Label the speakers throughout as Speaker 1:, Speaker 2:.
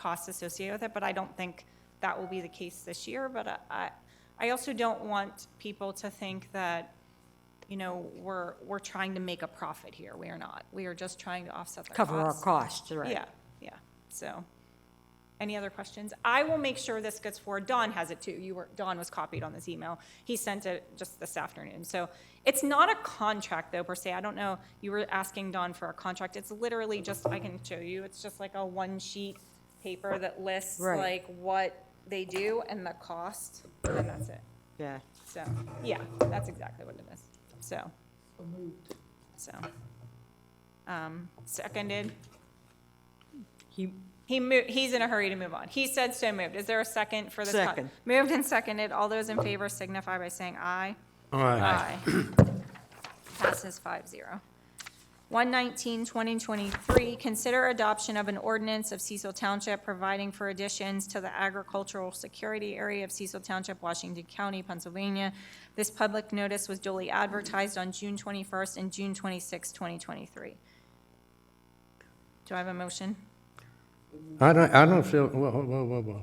Speaker 1: costs associated with it, but I don't think that will be the case this year. But I, I also don't want people to think that, you know, we're, we're trying to make a profit here. We are not. We are just trying to offset the
Speaker 2: cover our
Speaker 1: costs.
Speaker 2: costs, right?
Speaker 1: Yeah, yeah, so, any other questions? I will make sure this gets forward, Don has it too, you were, Don was copied on this email, he sent it just this afternoon, so. It's not a contract though per se, I don't know, you were asking Don for a contract, it's literally just, I can show you, it's just like a one-sheet paper that lists
Speaker 2: Right.
Speaker 1: like what they do and the cost, and that's it.
Speaker 2: Yeah.
Speaker 1: So, yeah, that's exactly what it is, so. So. Um, seconded,
Speaker 2: He,
Speaker 1: he mo- he's in a hurry to move on. He said so moved. Is there a second for this? con-
Speaker 2: Second.
Speaker 1: Moved and seconded. All those in favor signify by saying aye.
Speaker 3: Aye.
Speaker 1: Passes five zero. 119, 2023, consider adoption of an ordinance of Cecil Township providing for additions to the agricultural security area of Cecil Township, Washington County, Pennsylvania. This public notice was duly advertised on June 21st and June 26, 2023. Do I have a motion?
Speaker 3: I don't, I don't feel, whoa, whoa, whoa, whoa, whoa.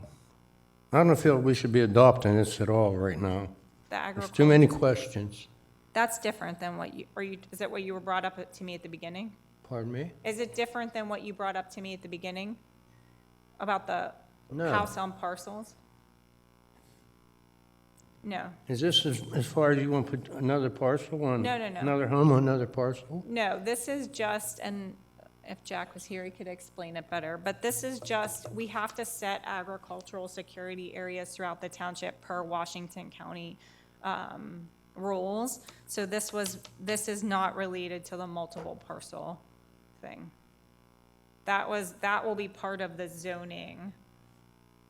Speaker 3: I don't feel we should be adopting this at all right now.
Speaker 1: The
Speaker 3: There's
Speaker 1: agricultural.
Speaker 3: too many questions.
Speaker 1: That's different than what you, are you, is that what you were brought up to me at the beginning?
Speaker 3: Pardon me?
Speaker 1: Is it different than what you brought up to me at the beginning? About the
Speaker 3: No.
Speaker 1: house on parcels? No,
Speaker 3: Is this as, as far as you want to put another parcel on?
Speaker 1: No, no, no.
Speaker 3: Another home on another parcel?
Speaker 1: no, this is just, and if Jack was here, he could explain it better, but this is just, we have to set agricultural security areas throughout the township per Washington County, um, rules. So this was, this is not related to the multiple parcel thing. That was, that will be part of the zoning,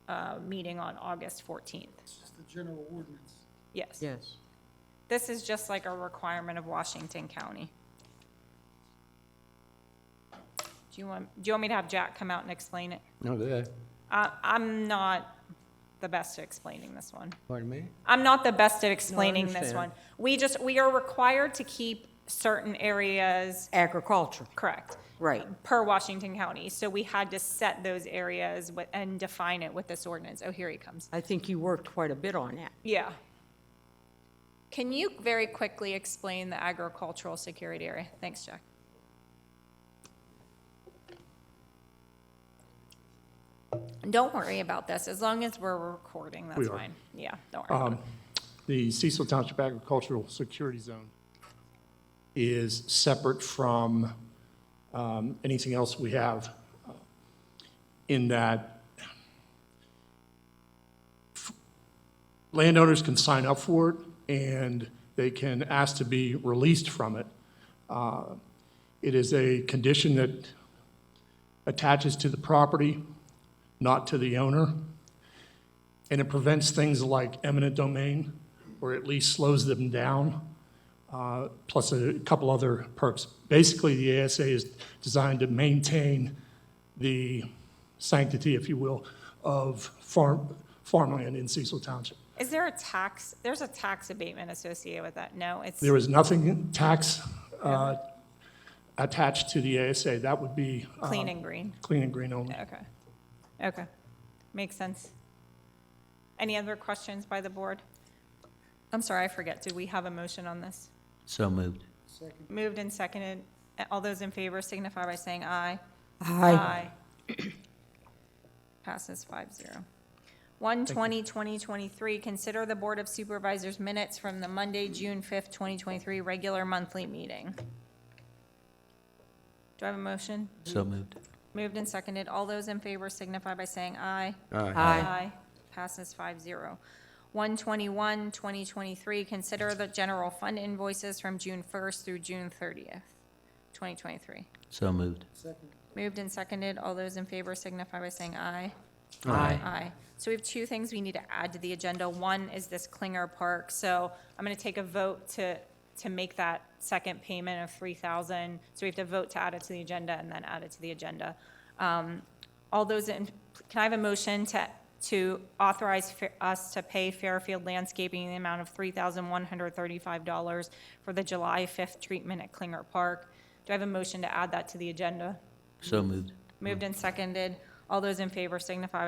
Speaker 1: uh, meeting on August fourteenth,
Speaker 4: It's just the general ordinance.
Speaker 1: yes.
Speaker 2: yes.
Speaker 1: This is just like a requirement of Washington County. Do you want, do you want me to have Jack come out and explain it?
Speaker 3: No, that,
Speaker 1: I, I'm not the best at explaining this one.
Speaker 3: pardon me?
Speaker 1: I'm not the best at explaining this one.
Speaker 3: understand.
Speaker 1: We just, we are required to keep certain areas,
Speaker 2: Agriculture,
Speaker 1: correct?
Speaker 2: right.
Speaker 1: per Washington County, so we had to set those areas wi- and define it with this ordinance. Oh, here he comes.
Speaker 2: I think you worked quite a bit on that.
Speaker 1: Yeah. Can you very quickly explain the agricultural security area? Thanks, Jack. Don't worry about this, as long as we're recording, that's
Speaker 5: We are. Um,
Speaker 1: fine. Yeah, don't worry. about it.
Speaker 5: The Cecil Township Agricultural Security Zone is separate from um, anything else we have uh, in that landowners can sign up for it and they can ask to be released from it. Uh, It is a condition that attaches to the property, not to the owner. And it prevents things like eminent domain, or at least slows them down, uh, plus a couple other perks. Basically, the ASA is designed to maintain the sanctity, if you will, of farm, farmland in Cecil Township.
Speaker 1: Is there a tax, there's a tax abatement associated with that? No, it's,
Speaker 5: There is nothing tax uh, attached to the ASA. That would be uh,
Speaker 1: clean and green.
Speaker 5: clean and green only.
Speaker 1: Okay, okay, makes sense. Any other questions by the board? I'm sorry, I forget, did we have a motion on this?
Speaker 6: So moved.
Speaker 1: Moved and seconded, all those in favor signify by saying aye.
Speaker 2: Aye.
Speaker 1: Aye. Passes five zero. One twenty, twenty twenty-three, consider the Board of Supervisors minutes from the Monday, June fifth, twenty twenty-three regular monthly meeting. Do I have a motion?
Speaker 6: So moved.
Speaker 1: Moved and seconded, all those in favor signify by saying aye.
Speaker 3: Aye.
Speaker 2: Aye.
Speaker 1: Passes five zero. 121, 2023, consider the general fund invoices from June 1st through June 30th, 2023.
Speaker 6: So moved.
Speaker 4: Second,
Speaker 1: Moved and seconded, all those in favor signify by saying aye.
Speaker 2: Aye.
Speaker 1: Aye. So we have two things we need to add to the agenda. One is this Klinger Park, so I'm going to take a vote to, to make that second payment of 3,000. So we have to vote to add it to the agenda and then add it to the agenda. Um, All those in, can I have a motion to, to authorize fa- us to pay Fairfield Landscaping in the amount of $3,135 for the July 5th treatment at Klinger Park? Do I have a motion to add that to the agenda?
Speaker 6: So moved.
Speaker 1: Moved and seconded. All those in favor signify by